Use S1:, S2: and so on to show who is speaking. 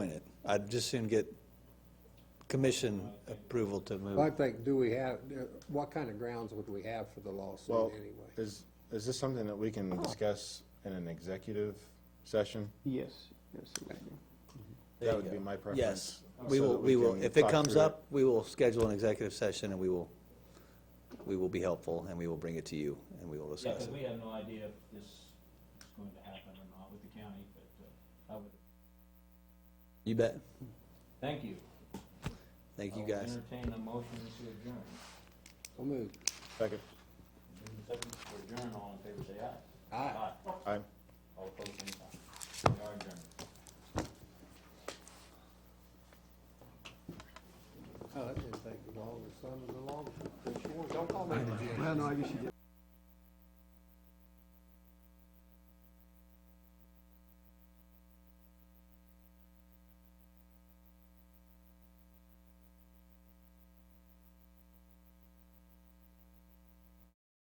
S1: I'd just soon get commission approval to move.
S2: Well, I think, do we have, uh, what kind of grounds would we have for the lawsuit
S3: Well,
S2: anyway?
S3: is, is this something that we can discuss in an executive session?
S4: Yes, yes, it would be.
S3: That would be my preference.
S1: Yes,
S3: so
S1: we will,
S3: that
S1: we will,
S3: can
S1: if it
S3: talk
S1: comes
S3: through
S1: up, we will schedule an executive session and we will, we will be helpful and we will bring it to you and we will
S5: Yeah,
S1: discuss
S5: because we
S1: it.
S5: have no idea if this is going to happen or not with the county, but uh, I would,
S1: You bet.
S5: thank you.
S1: Thank you,
S5: I will
S1: guys.
S5: Entertain a motion to adjourn.
S2: So moved.
S3: Second.
S5: Move the second to adjourn, all in favor, say aye.
S2: Aye.
S3: Aye.
S5: All opposed, same sign. We are adjourned.
S2: Oh, that didn't take long, the son of the law, Don't call me.
S4: Well, no, I guess you did.